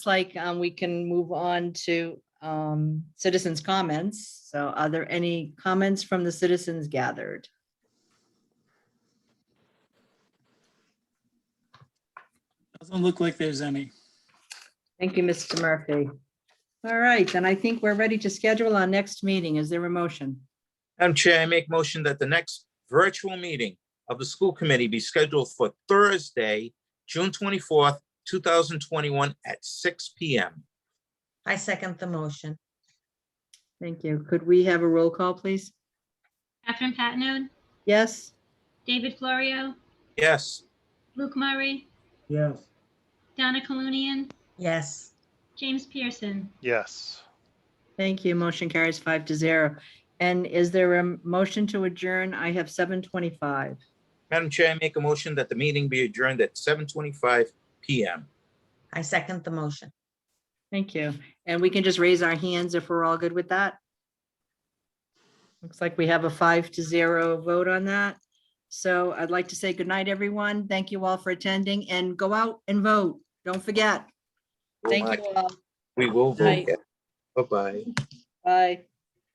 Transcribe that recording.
like um, we can move on to um, citizens' comments. So are there any comments from the citizens gathered? Doesn't look like there's any. Thank you, Mr. Murphy. All right, then I think we're ready to schedule our next meeting. Is there a motion? Madam Chair, I make motion that the next virtual meeting of the school committee be scheduled for Thursday, June twenty-fourth, two thousand twenty-one at six P M. I second the motion. Thank you. Could we have a roll call, please? Catherine Patino, Yes? David Florio, Yes, Luke Murray, Yes. Donna Colunian, Yes, James Pearson. Yes. Thank you. Motion carries five to zero. And is there a motion to adjourn? I have seven twenty-five. Madam Chair, I make a motion that the meeting be adjourned at seven twenty-five P M. I second the motion. Thank you. And we can just raise our hands if we're all good with that. Looks like we have a five to zero vote on that. So I'd like to say good night, everyone. Thank you all for attending and go out and vote. Don't forget. Thank you all. We will vote. Night. yes. Bye-bye. Bye.